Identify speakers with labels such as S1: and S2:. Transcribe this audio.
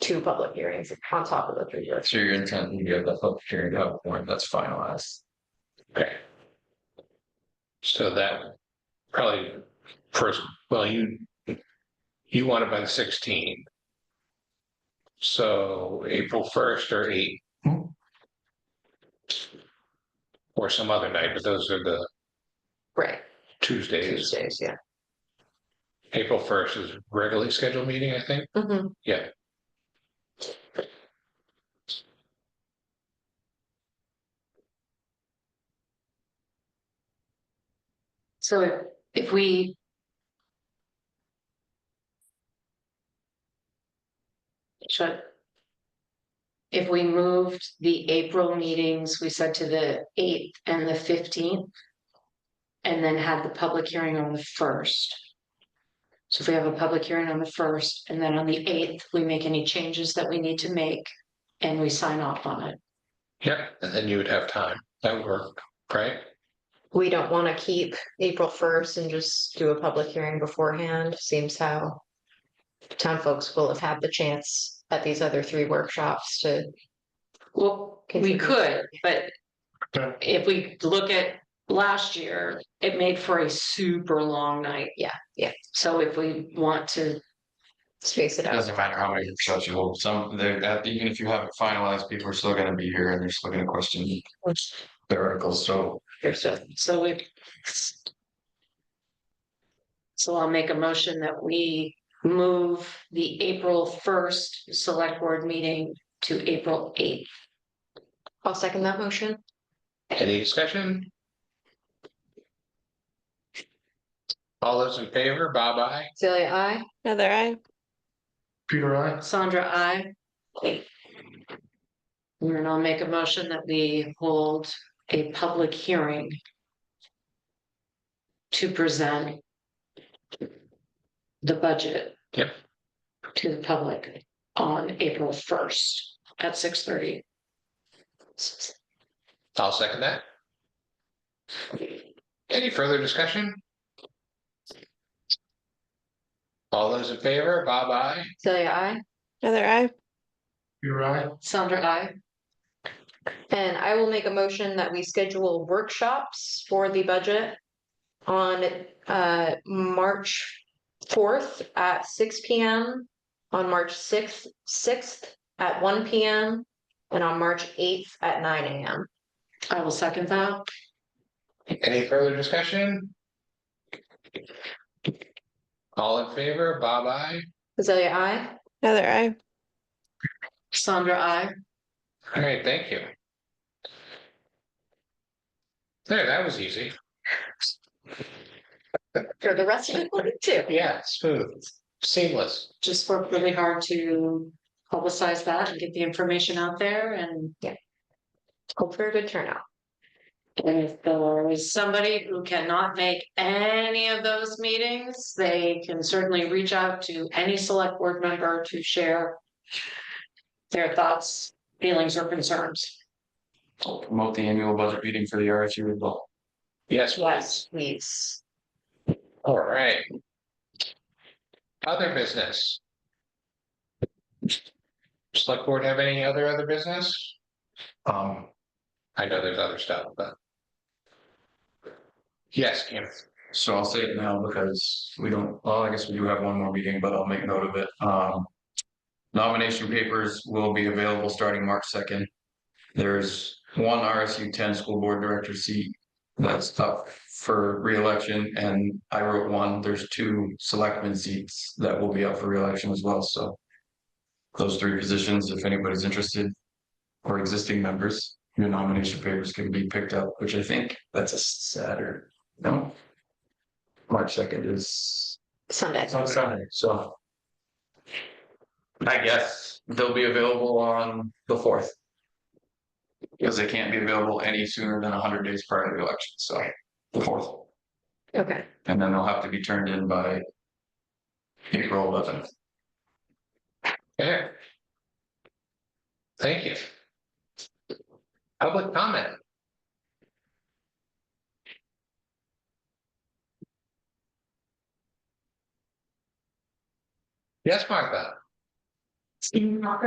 S1: two public hearings on top of the three.
S2: So you're intending to have the public hearing up when that's finalized.
S3: Okay. So that probably first, well, you, you want it by the sixteenth. So April first or eight.
S2: Hmm.
S3: Or some other night, but those are the
S1: Right,
S3: Tuesdays.
S1: Tuesdays, yeah.
S3: April first is regularly scheduled meeting, I think.
S4: Mm-hmm.
S1: Mhm.
S3: Yeah.
S1: So if- if we. Should. If we moved the April meetings, we said to the eighth and the fifteenth. And then had the public hearing on the first. So if we have a public hearing on the first and then on the eighth, we make any changes that we need to make and we sign off on it.
S3: Yep, and then you would have time. That would work, right?
S4: we don't want to keep April first and just do a public hearing beforehand, seems how town folks will have had the chance at these other three workshops to,
S1: Well, we
S4: Contribute.
S1: could, but
S3: Okay.
S1: if we look at last year, it made for a super long night.
S4: Yeah, yeah.
S1: So if we want to,
S4: space it
S2: It
S4: out.
S2: doesn't matter how many workshops you hold, some, they're, that- even if you have it finalized, people are still gonna be here and they're still gonna question the articles, so.
S1: so we. So I'll make a motion that we move the April first select board meeting to April eighth.
S4: I'll second that motion.
S3: Any discussion? All those in favor, Bob, I.
S4: Celia, I,
S5: Heather, I.
S2: Peter, I.
S1: Sandra, I. And I'll make a motion that we hold a public hearing. To present. The budget.
S3: Yep.
S1: To the public on April first at six thirty.
S3: I'll second that. Any further discussion? All those in favor, Bob, I.
S4: Celia, I,
S5: Heather, I.
S3: You're right.
S1: Sandra, I.
S4: and I will make a motion that we schedule workshops for the budget on uh March fourth at six P M, on March sixth, sixth at one P M, and on March eighth at nine A M.
S1: I will second that.
S3: Any further discussion? All in favor, Bob, I.
S4: Azalea, I.
S5: Heather, I.
S1: Sandra, I.
S3: All right, thank you. There, that was easy.
S4: For the rest of it, too.
S3: Yeah, smooth, seamless.
S1: Just worked really hard to publicize that and get the information out there and.
S4: Hope for a good turnout.
S1: And if there is somebody who cannot make any of those meetings, they can certainly reach out to any select board member to share. Their thoughts, feelings or concerns.
S2: I'll promote the annual budget meeting for the RSU as well.
S3: Yes,
S1: Yes.
S4: Please.
S3: all right. Other business. Select board have any other other business?
S2: Um,
S3: I know there's other stuff, but. Yes, Kim,
S2: So I'll say it now because we don't, well, I guess we do have one more meeting, but I'll make note of it. Um. Nomination papers will be available starting March second. There's one RSU ten school board director seat that's up for reelection and I wrote one. There's two selectmen seats that will be up for reelection as well, so. Those three positions, if anybody's interested, or existing members, your nomination papers can be picked up, which I think that's a Saturday, no? March second is
S4: Sunday.
S2: it's on Sunday, so. I guess they'll be available on the fourth. Because they can't be available any sooner than hundred days prior to the election, so the fourth,
S4: Okay.
S2: and then they'll have to be turned in by. April eleventh.
S3: yeah. Thank you. Public comment. Yes, Martha,
S1: Steve Walker